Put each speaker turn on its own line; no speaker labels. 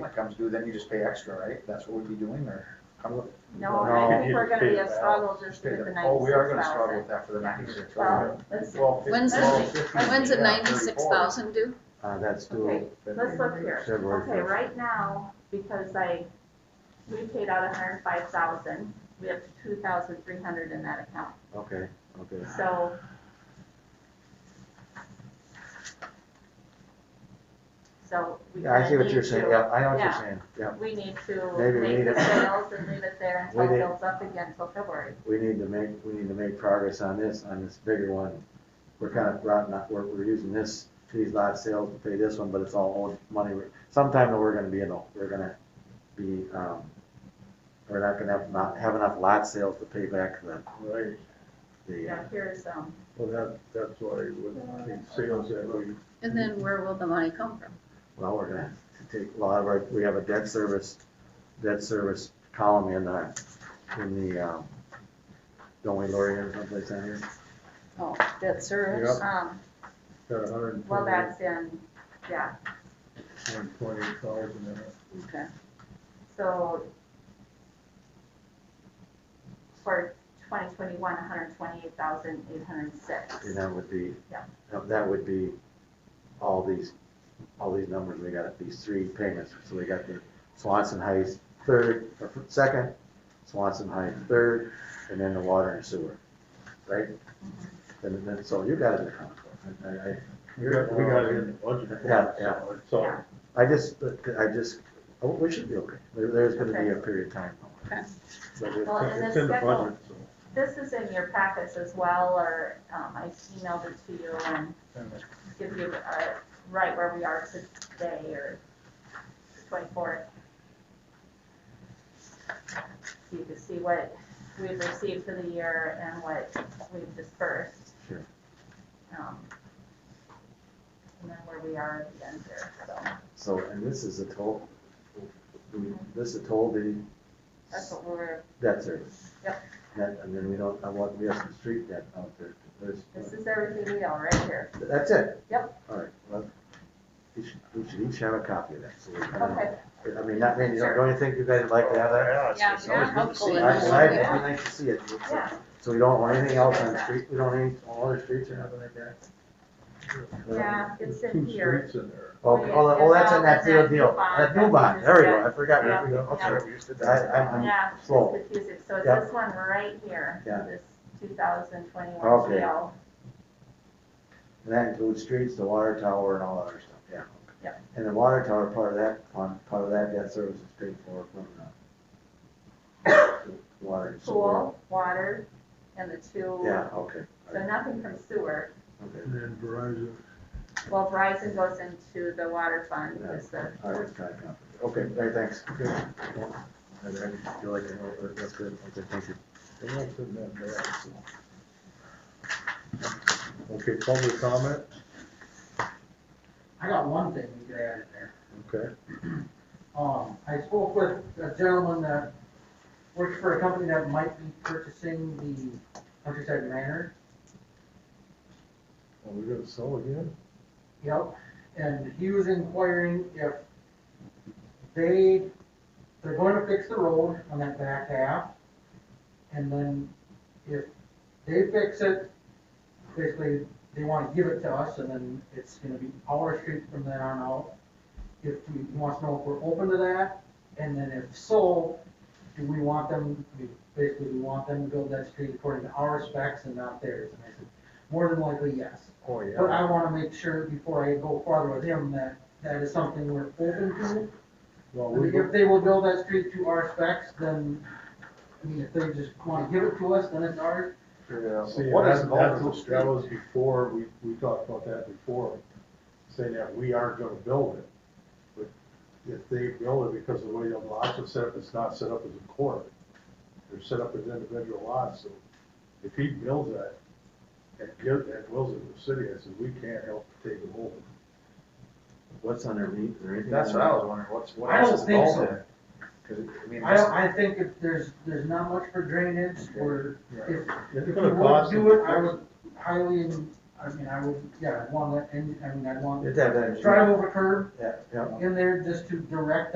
that comes due, then you just pay extra, right? That's what we'd be doing, or? how would-
No, I think
No.
we're gonna be a
Just pay the
struggle just
Just pay
with the
the,
ninety-six thousand.
oh, we are gonna struggle with that for the ninety-six.
Well, let's,
Well,
When's
the-
When's the ninety-six thousand due?
Uh, that's
okay,
due
let's look here.
February
Okay,
first.
right now, because I, we paid out a hundred and five thousand, we have two thousand three hundred in that account,
Okay, okay.
so. So we
Yeah, I see
kinda
what you're
need
saying,
to-
yeah, I know what you're
yeah.
saying, yeah.
We need to
Maybe we
make
need
the
it.
sales and leave it there
We
until it
need-
builds up again until February.
We need to make, we need to make progress on this, on this bigger one. We're kind of rotten, out- we're, we're using this, these lot sales to pay this one, but it's all old money. We're- Sometime we're gonna be, in the- we're gonna be, um, we're not gonna have, not have enough lot sales to pay back the,
Right,
the, uh,
Now, here's, um,
well, that, that's why with the sales that we,
And then where will the money come from?
well, we're gonna take a lot of our, we have a debt service, debt service column in the, in the, um, don't we, Lori, or someplace on here?
Oh, debt service?
um,
got a hundred and
well,
twenty,
that's in, yeah,
one twenty thousand in it.
Okay.
so for twenty twenty-one, hundred twenty-eight thousand, eight hundred six.
And that would be,
Yeah.
that- that would be all these, all these numbers, we got these three payments, so we got the Swanson Heights third, or second, Swanson Heights third, and then the water and sewer, right? And then, so you guys are account for it. I- I,
We got, we got it in the budget.
Yeah, yeah.
So,
Yeah.
I just, I just, oh, we should be okay. There, there's gonna be a period of time.
Okay.
So we-
Well, and
it's
the
in the
schedule-
budget, so.
This is in your packets as well, or, um, I emailed it to you and give you, uh, right where we are today or twenty-fourth. So you can see what we've received for the year and what we've dispersed.
Sure.
Um, And then where we are at the end here, so
So, and this is a toll, this is a toll, the
that's what we're,
debt service.
Yep.
That, and then we don't, I want, we have some street debt out there. There's,
this is everything we are right here.
that's it.
Yep.
All right, well, we should, we should each have a copy of that, so we kind of,
Okay,
I mean, not, don't
Sure.
don't you think you guys would like to have that?
Yeah,
It's always
yeah,
good to see.
hopefully.
I, I,
Yeah.
I like to see it. So-
yeah.
So we don't want anything else on the street, we don't need all other streets or nothing like that?
Yeah, it's
There's
in here.
Two streets in there.
Oh,
Well, yeah,
oh, oh, that's
yeah,
in that
that's that
deal, deal,
new bond,
that new bond, there we go, I forgot.
Yeah.
There we go.
Yeah.
Okay. I, I'm, I'm
Yeah, it's
slow.
confusing, so it's
Yeah.
this one right here,
Yeah.
this two thousand twenty-one
Okay.
GL.
And that includes streets, the water tower and all that other stuff, yeah.
Yep.
And the water tower, part of that, fund- part of that debt service is paid for from the water and sewer.
Pool, water, and the two,
Yeah, okay,
so nothing from sewer.
okay.
And then Verizon,
Well, Verizon goes into the water fund,
Yeah.
is the,
All right, it's kind of complicated. Okay, all right, thanks. Good. I I feel like I know, but that's good, okay, thank you.
they don't put that back, so. Okay, public comment,
I got one thing we could add in there.
okay,
Um, I spoke with a gentleman that works for a company that might be purchasing the Countryside Manor.
are we gonna sell again?
Yep, and he was inquiring if they, they're going to fix the road on that back half. And then if they fix it, basically, they wanna give it to us, and then it's gonna be our street from then on out. If we, he wants to know if we're open to that, and then if so, do we want them, we- basically, we want them to build that street according to our specs and not theirs? And I said, more than likely, yes.
Oh,
But I wanna make sure before I go farther with him that that is something we're open to.
Well,
I
we
mean,
don't,
If they will build that street to our specs, then, I mean, if they just wanna give it to us, then it's ours.
see,
What is
that,
involved in the
that, that was before, we, we talked about that before, saying that we aren't gonna build it. But if they build it, because the way the lots are set up, it's not set up as a court, they're set up as individual lots, so if he builds that, and gives, and wills it to the city, I said, we can't help take it over.
What's underneath, or anything?
That's what I was wondering, what's, what
I
else
don't
is
think
involved
so.
in it? 'Cause it- I mean,
I don't, I think if there's, there's not much for drainage or if, if
It's
you
gonna
would
cost them
do it, I
fix
would highly, I mean, I would, yeah, I'd want that, and, I mean, I'd want
It's that, that.
drive over curb
Yeah, yeah.
in there just to direct